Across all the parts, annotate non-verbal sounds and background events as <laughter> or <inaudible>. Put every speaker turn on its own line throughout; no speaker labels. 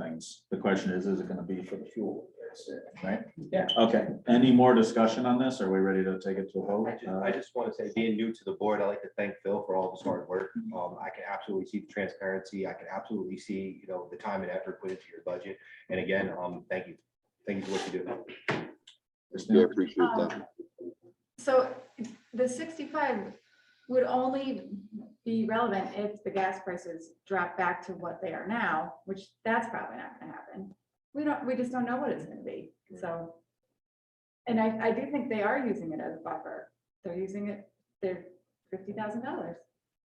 things. The question is, is it gonna be for the fuel, right?
Yeah.
Okay, any more discussion on this? Are we ready to take it to a vote?
I just,
Uh,
I just want to say, being new to the board, I'd like to thank Phil for all of his hard work. Um, I can absolutely see the transparency. I can absolutely see, you know, the time and effort put into your budget. And again, um, thank you. Thank you for what you do.
Yeah, appreciate that.
Um, So the sixty-five would only be relevant if the gas prices drop back to what they are now, which that's probably not gonna happen. We don't, we just don't know what it's gonna be, so. And I, I do think they are using it as a buffer. They're using it, they're fifty thousand dollars.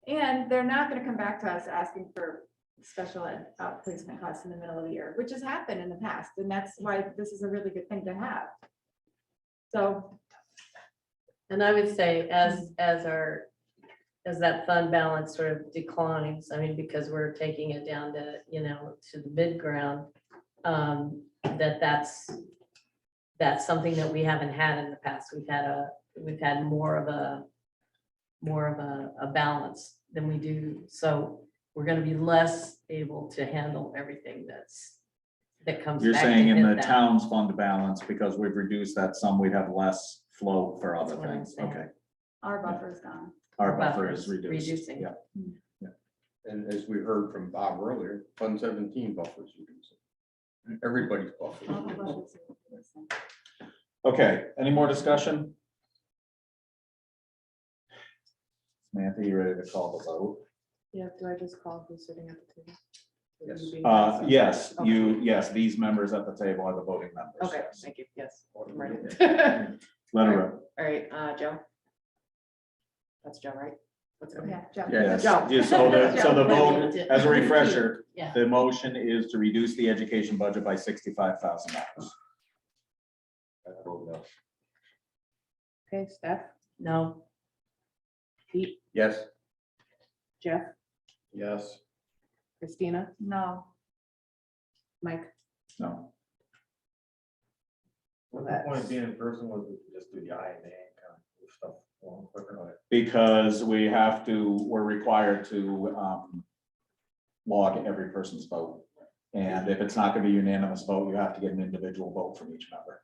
And they're not gonna come back to us asking for special ed outplacement costs in the middle of the year, which has happened in the past, and that's why this is a really good thing to have. So
And I would say as, as our, as that fund balance sort of declines, I mean, because we're taking it down to, you know, to the mid ground. Um, that that's, that's something that we haven't had in the past. We've had a, we've had more of a, more of a, a balance than we do. So we're gonna be less able to handle everything that's, that comes.
You're
back to
saying in
hit
the
that.
town's fund balance, because we've reduced that sum, we'd have less flow for other
That's what I'm
things,
saying.
okay?
Our buffer is gone.
Our buffer is
Buffer's
reduced,
reducing.
yeah.
And as we heard from Bob earlier, Fund Seventeen buffers. you can say. Everybody's buffers.
All the buffers are-
Okay, any more discussion? Samantha, you ready to call the vote?
Yeah, do I just call who's sitting at the table? Would
Yes.
you be-
Uh, yes, you, yes, these members at the table are the voting members.
Okay,
yes.
thank you, yes. I'm ready.
Let her rip.
<laughs> All right, uh, Joe? That's Joe, right? What's her name?
Yeah, Joe.
Yes,
Joe.
yeah, so the, so the vote, as a refresher,
Yeah.
the motion is to reduce the education budget by sixty-five thousand dollars.
I vote no.
Okay, Steph,
No,
Pete,
Yes.
Jeff,
Yes.
Christina,
No,
Mike.
No,
The point of
being in person was just do the I and A kind of stuff along quicker.
because we have to, we're required to, um, log every person's vote. And if it's not gonna be unanimous vote, you have to get an individual vote from each member.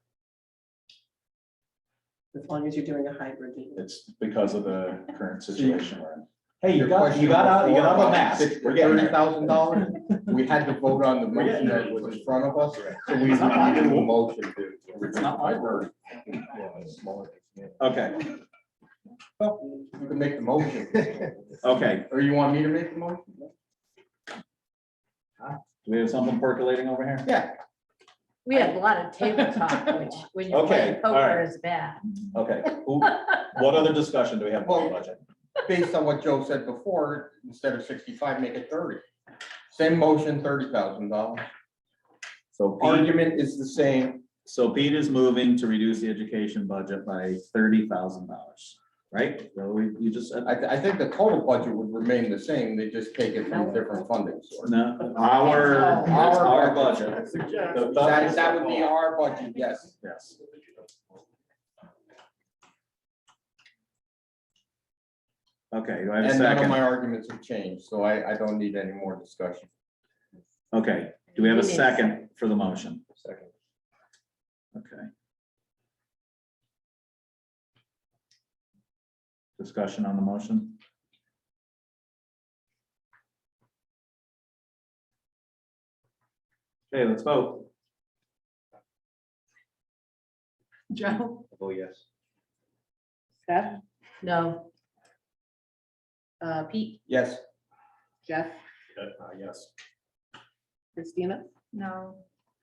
As long as you're doing a hybrid meeting.
It's because of the current situation we're in. Hey,
Your
you got, you got out, you got out the mask. We're getting
Thirty
there.
thousand dollars. We had to vote on the
We're getting
motion
there.
that was in front of us, so we
It's not my
reviewed the
<laughs> fault.
motion to.
It's not my fault. Okay,
Well, You can make the motion,
okay.
or you want me to make the motion?
Do we have something percolating over here?
we had a lot of table talk, which
<laughs>
when you're
Okay,
playing
all
poker
right.
is bad.
Okay, who- what other discussion do we have on the budget?
Based on what Joe said before, instead of sixty-five, make it thirty. Same motion, thirty thousand dollars.
So Pete,
Argument is the same.
so Pete is moving to reduce the education budget by thirty thousand dollars, right? So we, you just said,
I, I think the total budget would remain the same, they just take it from different funding source.
no, our,
It's
it's our budget. The
That,
budget-
that would be our budget, yes.
Yes. Okay, do I have a
And none of
second?
my arguments have changed, so I, I don't need any more discussion.
Okay, do we have a
We need a
second for the motion?
Second.
Okay. Discussion on the motion? Okay, let's vote.
Joe,
Oh, yes.
Steph,
No,
uh, Pete,
Yes,
Jeff,
Yes.
Christina,
no.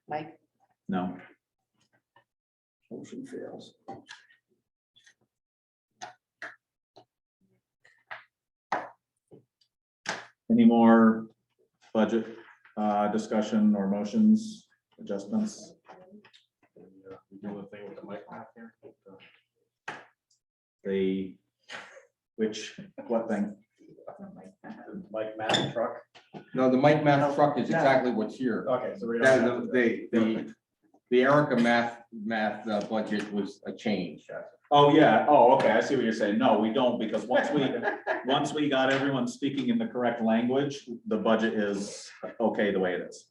Mike.
No.
motion fails.
Any more budget uh, discussion or motions, adjustments?
uh,
The, which, what thing?
Mike Matt truck.
No, the Mike Math truck is exactly what's here.
Oh,
Okay, so we
That, the- the, the, the Erica Math, Math uh, budget was a change.
Oh, yeah, oh, okay, I see what you're saying. No, we don't, because once we, once we got everyone speaking in the correct language, the budget is okay the way it is.